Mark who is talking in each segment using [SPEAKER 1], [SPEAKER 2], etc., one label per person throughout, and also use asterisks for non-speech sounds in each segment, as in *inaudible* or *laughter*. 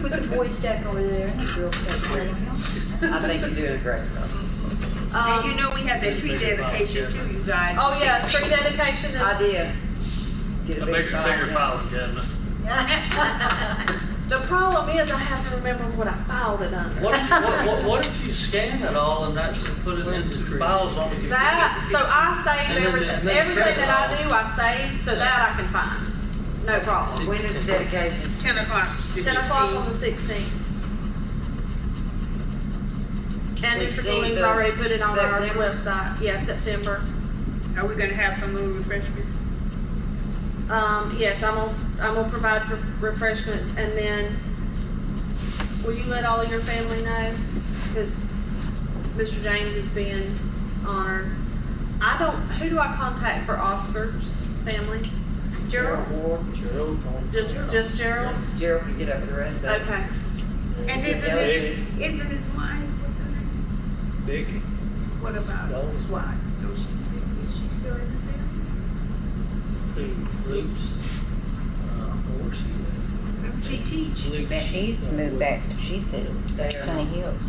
[SPEAKER 1] Put the boy stack over there and the girl stack over there.
[SPEAKER 2] I think you're doing a great job.
[SPEAKER 3] And you
[SPEAKER 1] Um,
[SPEAKER 3] know, we had that tree dedication too, you guys.
[SPEAKER 1] oh yeah, tree dedication
[SPEAKER 2] I
[SPEAKER 1] is.
[SPEAKER 2] did. Get
[SPEAKER 4] A bigger, bigger
[SPEAKER 2] file.
[SPEAKER 4] filing cabinet.
[SPEAKER 1] The problem is I have to remember what I filed it under.
[SPEAKER 5] What, if- what, what, what if you scan it all and actually put it into files on the computer?
[SPEAKER 6] That, so I save
[SPEAKER 5] And then- and
[SPEAKER 6] everything,
[SPEAKER 5] then
[SPEAKER 6] everything
[SPEAKER 5] share it
[SPEAKER 6] that I
[SPEAKER 5] all.
[SPEAKER 6] do, I save, so that I can find, no problem.
[SPEAKER 2] When is the dedication?
[SPEAKER 3] Ten o'clock.
[SPEAKER 6] Ten o'clock on the sixteenth. And Mr.
[SPEAKER 2] 16th
[SPEAKER 6] Golding's
[SPEAKER 2] of
[SPEAKER 6] already put it on our
[SPEAKER 2] September.
[SPEAKER 6] website, yeah, September.
[SPEAKER 3] Are we gonna have some little refreshments?
[SPEAKER 6] Um, yes, I'm gonna, I'm gonna provide ref- refreshments, and then, will you let all of your family know? Because Mr. James is being honored. I don't, who do I contact for Oscar's family? Gerald?
[SPEAKER 2] Ward,
[SPEAKER 7] Gerald. don't-
[SPEAKER 6] Just, just Gerald?
[SPEAKER 2] Gerald can get up with the rest of it.
[SPEAKER 6] Okay.
[SPEAKER 3] And
[SPEAKER 2] Yeah,
[SPEAKER 3] isn't
[SPEAKER 2] they
[SPEAKER 3] it, isn't his wife, what's her name?
[SPEAKER 7] Vicky.
[SPEAKER 3] What about
[SPEAKER 7] Those.
[SPEAKER 3] his wife? No, she's still, is she still in the city?
[SPEAKER 5] Who, Luke's, uh, where she at?
[SPEAKER 3] Don't she teach?
[SPEAKER 5] Luke's-
[SPEAKER 8] But she's moved back, to she said, Sunny Hills.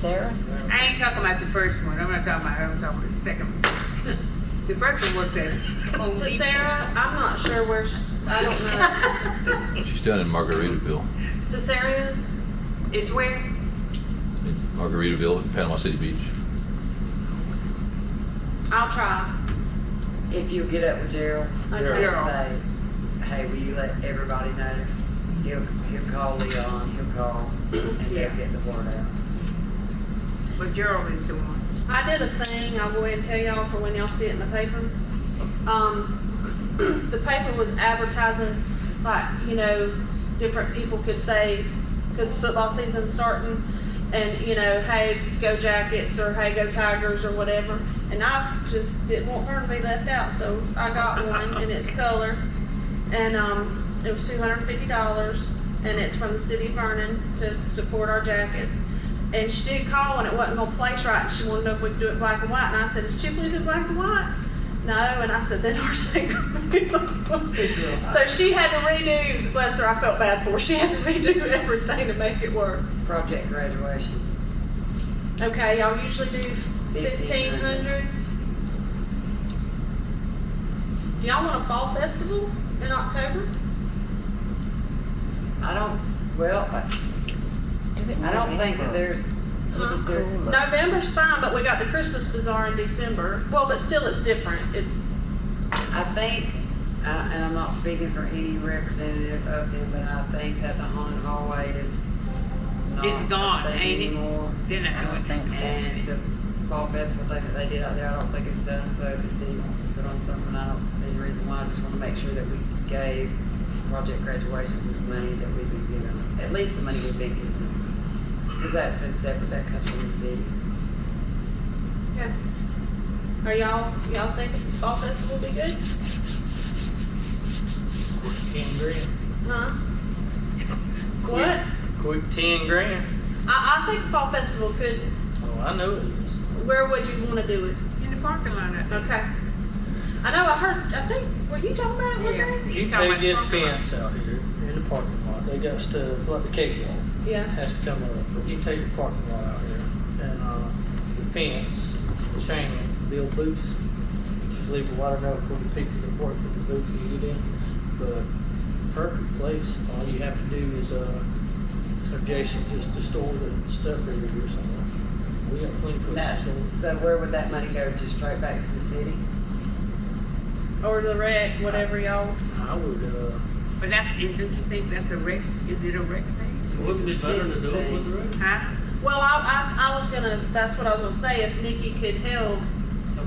[SPEAKER 8] Sarah?
[SPEAKER 3] I ain't talking about the first one, I'm not talking about, her. I'm talking about the second one. *laughs* The first one works at Home
[SPEAKER 6] To
[SPEAKER 3] Depot.
[SPEAKER 6] Sarah, I'm not sure where, sh- I
[SPEAKER 3] *laughs*
[SPEAKER 6] don't
[SPEAKER 9] She's down in Margaritaville,
[SPEAKER 6] know. To Sarah is?
[SPEAKER 3] It's where?
[SPEAKER 9] in Margaritaville, in Panama City Beach.
[SPEAKER 6] I'll try.
[SPEAKER 2] If you get up with Gerald,
[SPEAKER 6] Gerald.
[SPEAKER 2] Gerald say, hey, will you let everybody know? He'll, he'll call Leon, he'll call, and they'll
[SPEAKER 3] Yeah.
[SPEAKER 2] get the word out.
[SPEAKER 3] But Gerald is the one.
[SPEAKER 6] I did a thing, I'll go ahead and tell y'all for when y'all see it in the paper. Um, *clears throat* the paper was advertising, like, you know, different people could say, because football season's starting, and, you know, hey, go Jackets, or hey, go Tigers, or whatever. And I just didn't want her to be left out, so I got one, and it's color. And, um, it was two hundred and fifty dollars, and it's from the city of Vernon to support our Jackets. And she did call and it wasn't gonna place right, and she wanted to know if we could do it black and white, and I said, is Chipley's in black and white? No, and I said, then ours ain't gonna be black and white. So she had to redo, bless her, I felt bad for her, she had to redo everything to make it work.
[SPEAKER 2] Project graduation,
[SPEAKER 6] Okay, y'all usually do fifteen hundred? Do y'all want a fall festival in October?
[SPEAKER 2] I don't, well, I- I don't think that there's,
[SPEAKER 6] Huh?
[SPEAKER 2] there's,
[SPEAKER 6] November's fine, but we got the Christmas bazaar in December. Well, but still, it's different. It,
[SPEAKER 2] I think, uh, and I'm not speaking for any representative of them, but I think that the haunted hallway is not
[SPEAKER 3] It's gone,
[SPEAKER 2] a thing
[SPEAKER 3] ain't it?
[SPEAKER 2] anymore.
[SPEAKER 3] Then I would think
[SPEAKER 2] And the ball festival thing that they did out there, I don't think it's done, so if the city wants to put on something, I don't see any reason why, I just wanna make sure that we gave project graduations the money that we've been given, at least the money we've been given. Cause that's been separate, that comes from the city.
[SPEAKER 6] yeah. Are y'all y'all think the fall festival will be good?
[SPEAKER 5] Quick ten grand.
[SPEAKER 6] *laughs* Huh? What?
[SPEAKER 5] Quick ten grand.
[SPEAKER 6] I, I think fall festival could.
[SPEAKER 5] Oh, I know it is.
[SPEAKER 6] Where would you want to do it?
[SPEAKER 3] In the parking lot, I think.
[SPEAKER 6] Okay. I know. I heard. I think. Were you talking about it one
[SPEAKER 3] Yeah.
[SPEAKER 6] day?
[SPEAKER 5] You take this fence out here in the parking lot, they got stuff like the cake wall.
[SPEAKER 6] Yeah.
[SPEAKER 5] has to come up. You take your parking lot out here and uh, the fence, the chain, build booths. Just leave it wide enough for the people that work at the booth to get in. But perfect place. All you have to do is uh, adjacent just to store the stuff every year somewhere. We got plenty of
[SPEAKER 2] That,
[SPEAKER 5] places to store.
[SPEAKER 2] so where would that money go, just straight back to the city?
[SPEAKER 6] Or the rec, whatever y'all.
[SPEAKER 5] I would. Uh,
[SPEAKER 3] But that's, and don't you think that's a rec, is it a rec thing?
[SPEAKER 2] Wouldn't it be better to do it with the
[SPEAKER 3] Huh?
[SPEAKER 6] Well, I, I, I was gonna. That's what I was gonna say. If Nikki could help.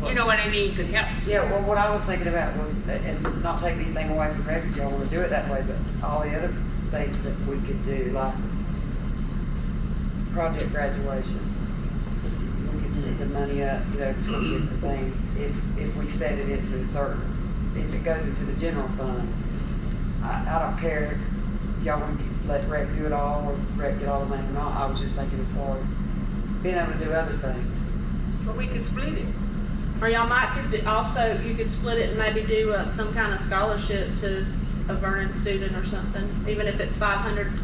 [SPEAKER 3] You know what I mean, could help.
[SPEAKER 2] Yeah, well, what I was thinking about was, uh, and not taking anything away from Refuge, y'all wanna do it that way, but all the other things that we could do, like project graduation. We could split the money up, you know, toward different things, if, if we set it into a certain, if it goes into the general fund. I, I don't care if y'all wanna get- let rec do it all, or rec get all the money or not, I was just thinking as far as being able to do other things.
[SPEAKER 3] But we could split it.
[SPEAKER 6] Or y'all might could do- also, you could split it and maybe do uh, some kind of scholarship to a Vernon student or something, even if it's five hundred